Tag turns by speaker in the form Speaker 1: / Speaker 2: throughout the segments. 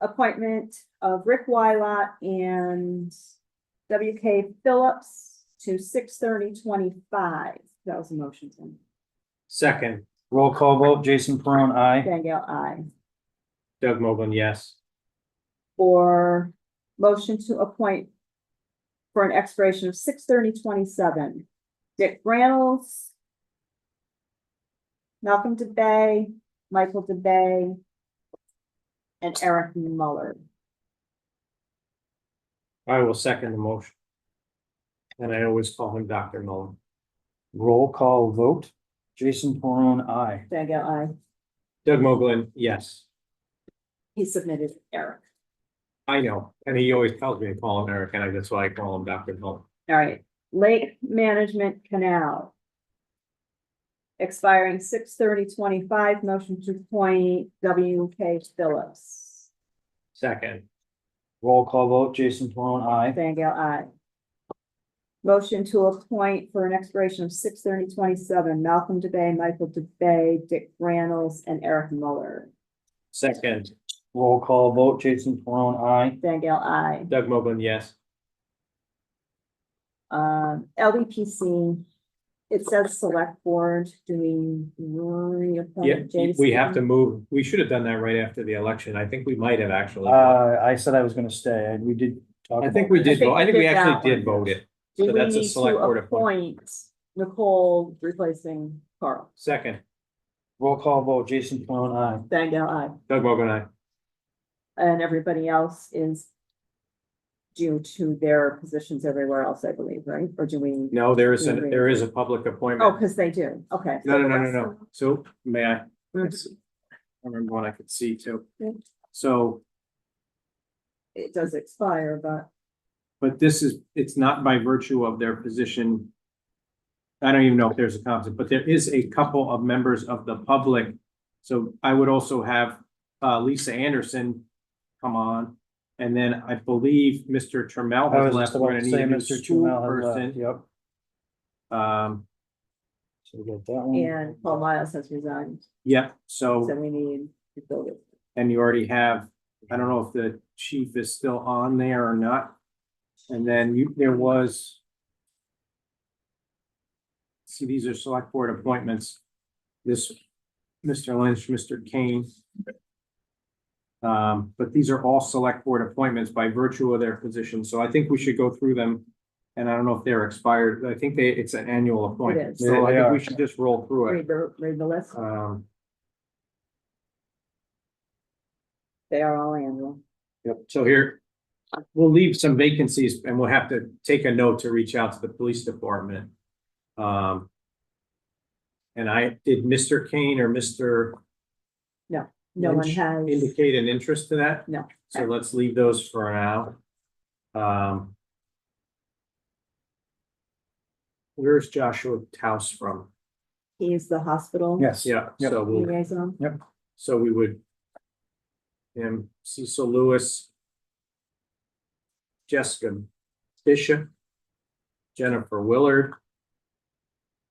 Speaker 1: appointment of Rick Wylot and W K Phillips to six thirty twenty-five. That was a motion, Tim.
Speaker 2: Second,
Speaker 3: Roll call vote, Jason Peron, I.
Speaker 1: Danielle, I.
Speaker 2: Doug Mogul, yes.
Speaker 1: For motion to appoint for an expiration of six thirty twenty-seven, Dick Reynolds, Malcolm DeBay, Michael DeBay, and Eric Muller.
Speaker 2: I will second the motion. And I always call him Dr. Muller.
Speaker 3: Roll call vote, Jason Peron, I.
Speaker 1: Danielle, I.
Speaker 2: Doug Mogul, yes.
Speaker 1: He submitted Eric.
Speaker 2: I know, and he always tells me to call him Eric, and I- that's why I call him Dr. Muller.
Speaker 1: All right, Lake Management Canal. Expiring six thirty twenty-five, motion to appoint W K Phillips.
Speaker 2: Second,
Speaker 3: Roll call vote, Jason Peron, I.
Speaker 1: Fangel, I. Motion to appoint for an expiration of six thirty twenty-seven, Malcolm DeBay, Michael DeBay, Dick Reynolds, and Eric Muller.
Speaker 2: second,
Speaker 3: Roll call vote, Jason Peron, I.
Speaker 1: Fangel, I.
Speaker 2: Doug Mogul, yes.
Speaker 1: Um, LDPC, it says select board, do we
Speaker 2: Yeah,
Speaker 1: reappoint Jason?
Speaker 2: we have to move, we should have done that right after the election. I think we might have actually.
Speaker 3: Uh, I said I was gonna stay, and we did. talk
Speaker 2: I think
Speaker 3: about
Speaker 2: we
Speaker 3: it.
Speaker 2: did, vote. I think we
Speaker 1: I think we did
Speaker 2: actually
Speaker 1: that
Speaker 2: did
Speaker 1: one.
Speaker 2: vote it.
Speaker 1: Do
Speaker 2: So
Speaker 1: we
Speaker 2: that's a
Speaker 1: need to
Speaker 2: select board appointment.
Speaker 1: appoint Nicole replacing Carl?
Speaker 2: Second,
Speaker 3: Roll call vote, Jason Peron, I.
Speaker 1: Bangor, aye.
Speaker 2: Doug Mogul, I.
Speaker 1: And everybody else is due to their positions everywhere else, I believe, right? Or do we?
Speaker 2: No, there is, an there is a public
Speaker 1: Oh,
Speaker 2: appointment.
Speaker 1: because they do, okay.
Speaker 2: No, no, no, no, no. So may I?
Speaker 1: Mhm.
Speaker 2: I remember one I could see too.
Speaker 1: Yeah.
Speaker 2: So,
Speaker 1: It does expire, but
Speaker 2: but this is, it's not by virtue of their position. I don't even know if there's a conflict, but there is a couple of members of the public. So I would also have uh Lisa Anderson come on. And then I believe Mr. Trammell
Speaker 3: I
Speaker 2: has
Speaker 3: was
Speaker 2: left.
Speaker 3: just
Speaker 2: We're
Speaker 3: about
Speaker 2: gonna
Speaker 3: to
Speaker 2: need
Speaker 3: say
Speaker 2: a new
Speaker 3: Mr. Trammell has left,
Speaker 2: person.
Speaker 3: yep.
Speaker 2: Um,
Speaker 3: So we got that one.
Speaker 2: Mm.
Speaker 1: and Paul Miles has resigned,
Speaker 2: yeah, so.
Speaker 1: so we need to build it.
Speaker 2: And you already have, I don't know if the chief is still on there or not. And then you, there was. See, these are select board appointments. This, Mr. Lynch, Mr. Kane. Um, but these are all select board appointments by virtue of their position, so I think we should go through them. And I don't know if they're expired, I think they, it's an annual appointment,
Speaker 1: is.
Speaker 2: so I
Speaker 3: Yeah, they
Speaker 2: think we
Speaker 3: are.
Speaker 2: should just roll through it.
Speaker 1: Read the, read the list,
Speaker 2: Um,
Speaker 1: they are all annual.
Speaker 2: Yep, so here, we'll leave some vacancies and we'll have to take a note to reach out to the police department. Um. And I, did Mr. Kane or Mr.
Speaker 1: No one
Speaker 2: Lynch
Speaker 1: has,
Speaker 2: indicate an interest to that?
Speaker 1: No.
Speaker 2: So let's leave those for now. Um. Where's Joshua Taus from?
Speaker 1: he's the hospital.
Speaker 3: Yes.
Speaker 2: Yeah,
Speaker 3: Yep.
Speaker 2: so we'll,
Speaker 1: Liaison.
Speaker 2: so we would. And Cecil Lewis. Jessica Bishop. Jennifer Willard.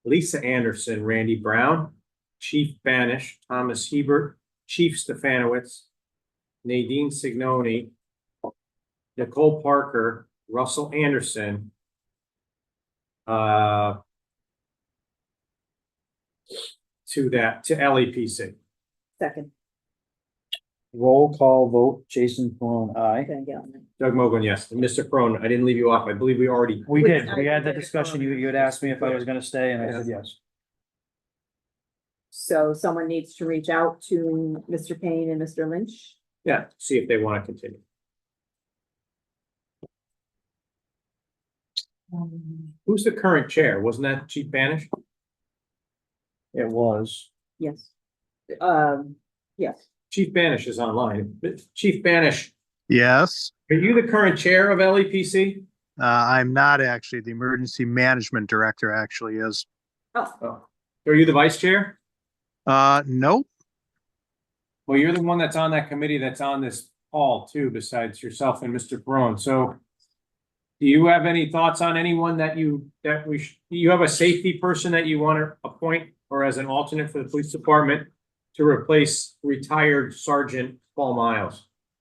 Speaker 2: Lisa Anderson, Randy Brown, Chief Banish, Thomas Hebert, Chief Stefanowitz. Nadine Signoni. Nicole Parker, Russell Anderson. Uh. To that, to E LEPC.
Speaker 1: Second,
Speaker 3: Roll call vote, Jason Peron, I.
Speaker 1: Van Galen.
Speaker 2: Doug Mogul, yes. And Mr. Crone, I didn't leave you off. I believe we already,
Speaker 3: We
Speaker 1: Which
Speaker 3: did,
Speaker 1: I
Speaker 3: we had the
Speaker 1: did,
Speaker 3: discussion,
Speaker 1: um,
Speaker 3: you, you had asked me if I was gonna stay, and I said yes.
Speaker 1: So someone needs to reach out to Mr. Payne and Mr. Lynch.
Speaker 2: yeah, see if they want to continue. Who's the current chair? Wasn't that Chief Banish?
Speaker 3: It was.
Speaker 1: Yes. Um, yes,
Speaker 2: Chief Banish is online. Chief Banish,
Speaker 4: Yes,
Speaker 2: are you the current chair of E LEPC?
Speaker 4: uh, I'm not actually. The emergency management director actually is.
Speaker 2: Oh, Are you the vice chair?
Speaker 4: Uh, nope.
Speaker 2: Well, you're the one that's on that committee that's on this call too, besides yourself and Mr. Crone. So do you have any thoughts on anyone that you, that we, sh- do you have a safety person that you want to appoint or as an alternate for the police department to replace retired Sergeant Paul Miles?